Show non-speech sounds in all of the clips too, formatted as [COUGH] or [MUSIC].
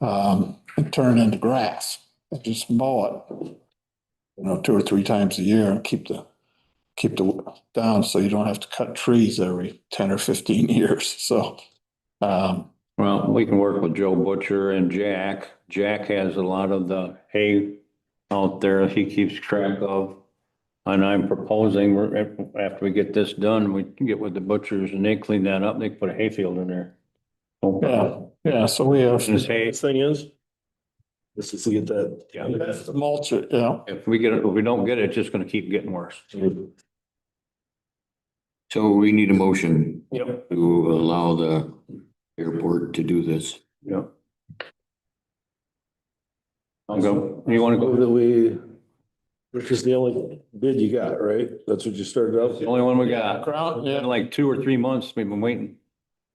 um, and turn it into grass and just mow it. You know, two or three times a year and keep the, keep the down so you don't have to cut trees every ten or fifteen [LAUGHS] years, so. Um, Well, we can work with Joe Butcher and Jack. Jack has a lot of the hay out there he keeps track of. And I'm proposing, we're- after we get this done, we can get with the butchers and they clean that up. They can put a hayfield in there. yeah, yeah, so we have This hay, This thing is. This is to get that. to mulch it, yeah. if we get, it, if we don't get it, it's just gonna keep getting worse. So we need a motion Yep. to allow the airport to do this. Yep. I'll go. You wanna go? That we, which is the only bid you got, right? That's what you started The out. only one we got. Ground, Been yeah, Like two or three months we've been waiting.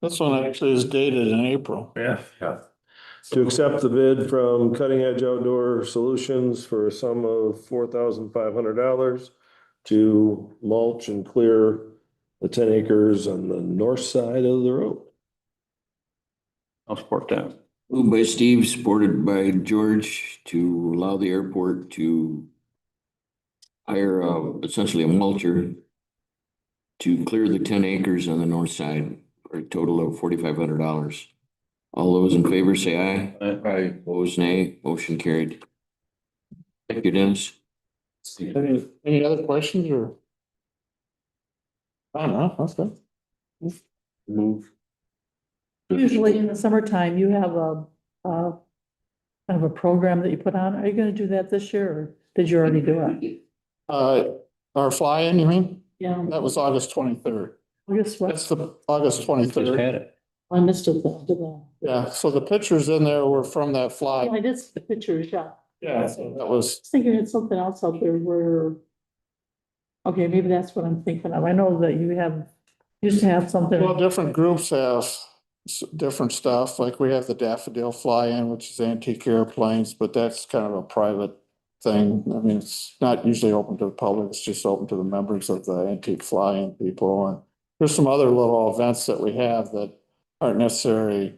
this one actually is dated in April. Yeah. To accept the bid from Cutting Edge Outdoor Solutions for a sum of four thousand five hundred dollars to mulch and clear the ten acres on the north side of the road. I'll support that. Moved by Steve, supported by George to allow the airport to hire uh, essentially a mulcher to clear the ten acres on the north side for a total of forty-five hundred dollars. All those in favor say aye. Right. Opposed, nay. Motion carried. Thank you, Dennis. Any, any other questions or? I don't know, that's good. Move. Usually in the summertime, you have a, uh, kind of a program that you put on. Are you gonna do that this year or did you already do it? Uh, our fly-in, you mean? Yeah. That was August twenty-third. August what? That's the August Just twenty-third. had it. I missed it though. did I? Yeah, so the pictures in there were from that Yeah, fly. I did see the pictures, yeah. I Yeah, so that was, was thinking it's something else out there where, okay, maybe that's what I'm thinking of. I know that you have, used to have something. well, different groups have s- different stuff, like we have the daffodil fly-in, which is antique airplanes, but that's kind of a private thing. I mean, it's not usually open to the public, it's just open to the members of the antique fly-in people. And there's some other little events that we have that aren't necessarily,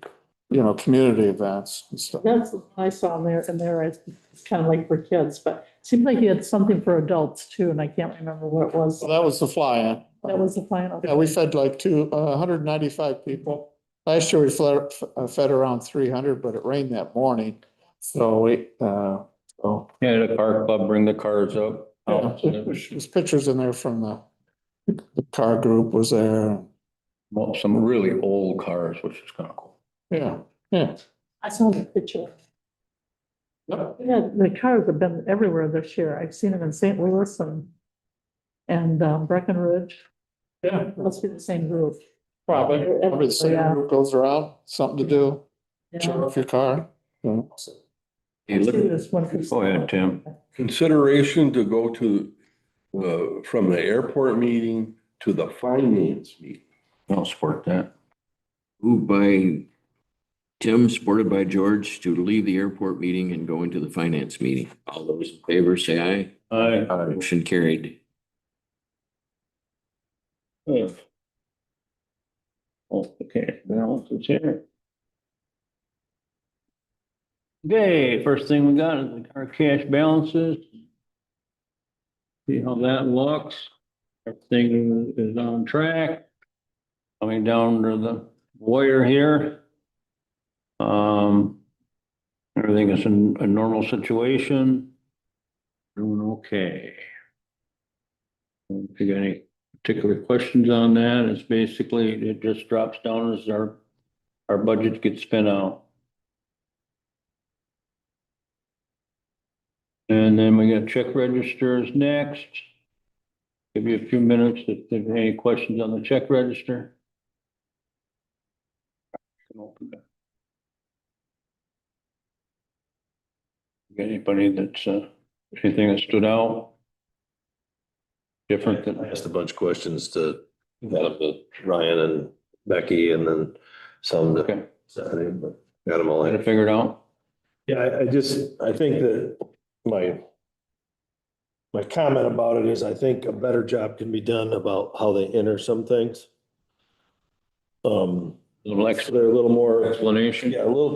you know, community events and stuff. That's what I saw in there, and there it's kind of like for kids, but it seemed like you had something for adults too, and I can't remember what it was. So that was the fly-in. That was the final. Yeah, we fed like two, uh, hundred and ninety-five people. Last year we fled, uh, fed around three hundred, but it rained that morning. So we, uh, so, Yeah, the car club, bring the cars up. yeah, there's pictures in there from the, the car group was there. Well, some really old cars, which is kind of cool. Yeah, yeah. I saw the picture. Yep. Yeah, the cars have been everywhere this year. I've seen them in St. Louis and, and um, Breckenridge. Yeah, Must be the same group. probably. Probably the Yeah. same group goes around, something to do, show Yeah. off your car. you know. Hey, look, See this one. Go ahead, Tim. Consideration to go to, uh, from the airport meeting to the finance meeting. I'll support that. Moved by Tim, supported by George, to leave the airport meeting and go into the finance meeting. All those in favor say aye. I, Motion carried. Oh, okay, balance is here. Okay, first thing we got is our cash balances. See how that looks. Everything is on track. Coming down to the wire here. Um, everything is in a normal situation. Doing okay. If you got any particular questions on that, it's basically, it just drops down as our, our budget gets spent out. And then we got check registers next. Give you a few minutes if there's any questions on the check register. Can open that. Anybody that's, uh, anything that stood out? Different than. I asked a bunch of questions to, got them to Ryan and Becky and then some Okay. to Stephanie, but got them all Had in. it figured out? Yeah, I, I just, I think that my, my comment about it is I think a better job can be done about how they enter some things. Um, Little so they're a little more, explanation? yeah, a little